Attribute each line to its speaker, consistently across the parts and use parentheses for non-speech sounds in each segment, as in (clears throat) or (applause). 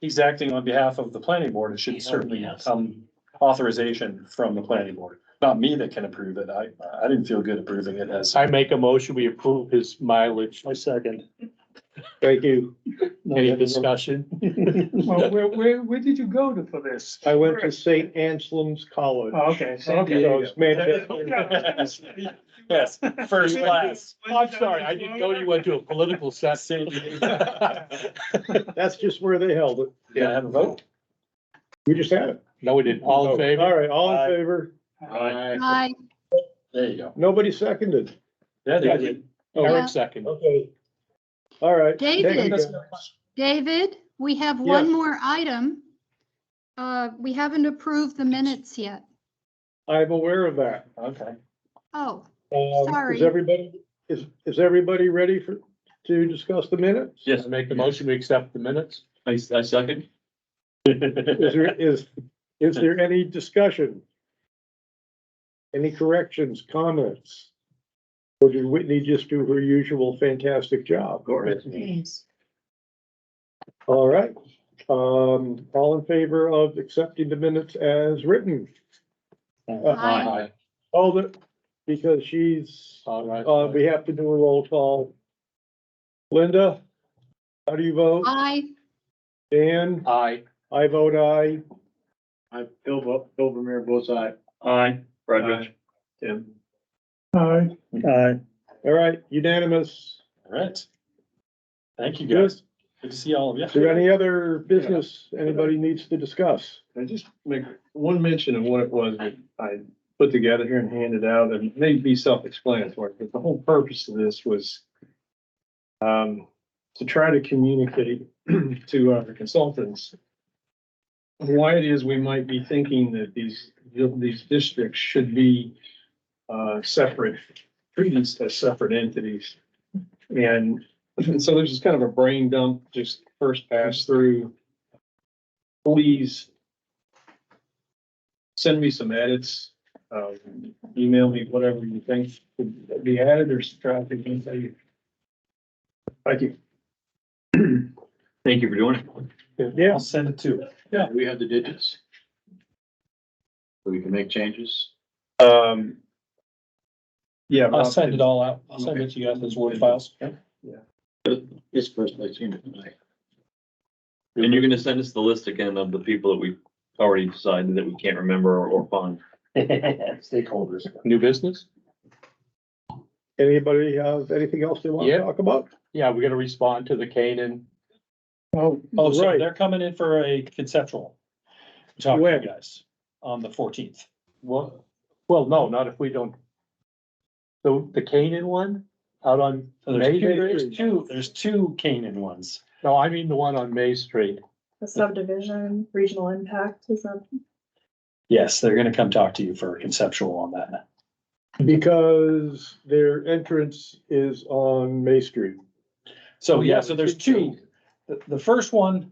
Speaker 1: he's acting on behalf of the planning board, it should
Speaker 2: He's
Speaker 1: certainly
Speaker 2: only us.
Speaker 1: come authorization from the planning board. Not me that can approve it, I, I didn't feel good approving it (laughs) as.
Speaker 2: I make a motion, we approve his mileage. My second.
Speaker 3: Thank you.
Speaker 2: Any discussion?
Speaker 4: Well, where, where, where did you go to for this?
Speaker 3: I went to St. Anselm's College.
Speaker 4: Oh, Okay, so,
Speaker 3: So
Speaker 4: okay.
Speaker 3: it's Manchester.
Speaker 1: Yes, Yes, first class.
Speaker 2: Oh, I'm sorry, I didn't know you went to a political session.
Speaker 3: That's just where they held it.
Speaker 1: Can I have a vote?
Speaker 3: We just had it.
Speaker 2: (laughs)
Speaker 3: Oh,
Speaker 2: No, we didn't. All in favor?
Speaker 3: All right, all
Speaker 1: Aye.
Speaker 3: in favor.
Speaker 5: Hi,
Speaker 1: There you go.
Speaker 3: Nobody seconded.
Speaker 1: Yeah, there you
Speaker 2: Eric second.
Speaker 3: Okay. All right. Thank you,
Speaker 5: David.
Speaker 3: guys.
Speaker 5: David, we have one more item. Uh, we haven't approved the minutes yet.
Speaker 3: I'm aware of that.
Speaker 1: go. Okay.
Speaker 5: Oh,
Speaker 3: Um,
Speaker 5: Sorry.
Speaker 3: Is everybody, is, is everybody ready for, to discuss the minutes?
Speaker 1: Yes.
Speaker 2: I Make the motion, we accept the minutes.
Speaker 6: I, I
Speaker 1: (laughs)
Speaker 6: second.
Speaker 3: Is there, is, is there any discussion? Any corrections, comments? Or did Whitney just do her usual fantastic job? All right, um, all in favor of accepting the minutes as written?
Speaker 5: Aye.
Speaker 3: Hold it, because she's,
Speaker 2: All right.
Speaker 3: uh, we have to do a roll call. Linda, how do you vote?
Speaker 5: I,
Speaker 3: Dan,
Speaker 2: Aye.
Speaker 3: I vote aye.
Speaker 6: I, Bill, Bo- Bill Vermeer, both aye. Aye. Brad, Tim.
Speaker 4: Aye.
Speaker 3: All right, unanimous.
Speaker 1: All right. Thank you,
Speaker 3: Good.
Speaker 1: guys. Good to see all of you.
Speaker 3: Is there any other business anybody needs to discuss?
Speaker 6: I just make one mention of what it was that I put together here and handed out, and it may be self-explanatory, but the whole purpose of this was um, to try to communicate (clears throat) to our consultants why it is we might be thinking that these, these districts should be uh, separate, treated as separate entities. And (clears throat) so there's just kind of a brain dump, just first pass through. Please send me some edits, um, email me whatever you think should be added or subtracted, you can say. Thank you. Thank you for doing it.
Speaker 3: Yeah,
Speaker 1: I'll send it to.
Speaker 6: We have the digits.
Speaker 7: So we can make changes.
Speaker 6: Um. Yeah.
Speaker 1: I'll send it all out. I'll send it to you guys as Word files.
Speaker 7: This person I've seen it tonight. And you're gonna send us the list again of the people that we already decided that we can't remember or- or find.
Speaker 1: (laughs) Stakeholders.
Speaker 2: New business?
Speaker 3: anybody have anything else they want
Speaker 2: Yeah.
Speaker 3: to talk about?
Speaker 2: Yeah, we're gonna respond to the Canaan.
Speaker 3: Oh,
Speaker 1: Oh, so
Speaker 3: right.
Speaker 1: they're coming in for a conceptual. Talk to
Speaker 3: When?
Speaker 1: you guys on the fourteenth.
Speaker 2: Well, well, no, not if we don't. The, the Canaan one out on
Speaker 1: So there's
Speaker 2: May
Speaker 1: two, there's
Speaker 2: Street?
Speaker 1: two, there's two Canaan ones.
Speaker 2: No, I mean the one on May Street.
Speaker 8: The subdivision, regional impact is a
Speaker 1: Yes, they're gonna come talk to you for a conceptual on that.
Speaker 3: Because their entrance is on May Street.
Speaker 2: Oh,
Speaker 1: So, yeah, so there's two. The, the first one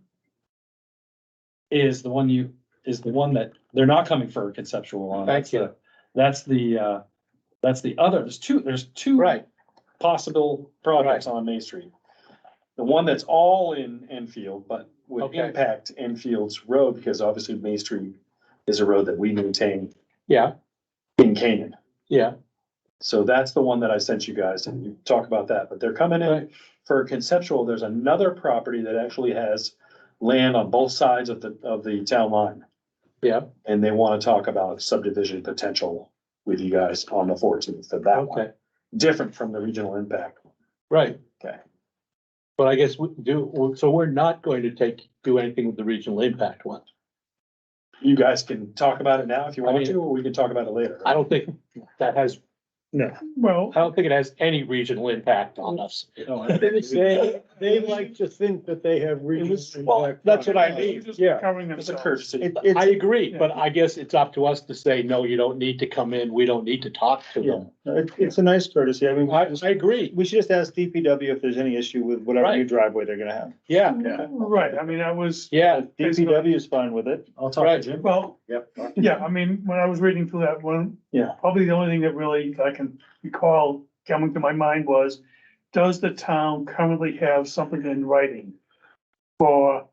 Speaker 1: is the one you, is the one that, they're not coming for a conceptual on.
Speaker 2: Thank
Speaker 1: That's
Speaker 2: you.
Speaker 1: the- That's the, uh, that's the other, there's two, there's two.
Speaker 2: Right,
Speaker 1: possible projects on Main Street. The one that's all in Enfield, but would
Speaker 2: Okay.
Speaker 1: impact Enfield's road, because obviously Main Street is a road that we maintain
Speaker 2: yeah,
Speaker 1: in Canaan.
Speaker 2: yeah.
Speaker 1: So that's the one that I sent you guys, and you talk about that, but they're coming in
Speaker 2: Right.
Speaker 1: for a conceptual, there's another property that actually has land on both sides of the, of the town line.
Speaker 2: Yeah.
Speaker 1: And they wanna talk about subdivision potential with you guys on the fourteenth of that one,
Speaker 2: Okay,
Speaker 1: different from the regional impact.
Speaker 2: right.
Speaker 1: Okay.
Speaker 2: But I guess we do, so we're not going to take, do anything with the regional impact one.
Speaker 1: You guys can talk about it now if you
Speaker 2: I
Speaker 1: want
Speaker 2: mean-
Speaker 1: to, or we can talk about it later.
Speaker 2: I don't think that has,
Speaker 4: Well,
Speaker 2: I don't think it has any regional impact on us.
Speaker 3: They, they like to think that they have reasons.
Speaker 2: Well, that's what I mean.
Speaker 4: just
Speaker 3: Yeah.
Speaker 4: covering
Speaker 1: It's a
Speaker 4: themselves.
Speaker 1: courtesy.
Speaker 2: I agree, but I guess it's up to us to say, no, you don't need to come in. We don't need to talk to them.
Speaker 7: It's a nice courtesy. I mean,
Speaker 2: I, I agree.
Speaker 7: we should just ask DPW if there's any issue with whatever
Speaker 2: new
Speaker 7: driveway they're gonna have.
Speaker 2: Yeah,
Speaker 4: Right, I mean, I was,
Speaker 2: yeah.
Speaker 4: DPW
Speaker 7: is fine with it.
Speaker 1: I'll
Speaker 2: Right.
Speaker 1: talk to Jim.
Speaker 4: well,
Speaker 7: Yep.
Speaker 4: yeah, I mean, when I was reading through that one.
Speaker 7: Yeah.
Speaker 4: Probably the only thing that really I can recall coming to my mind was, does the town currently have something in writing? For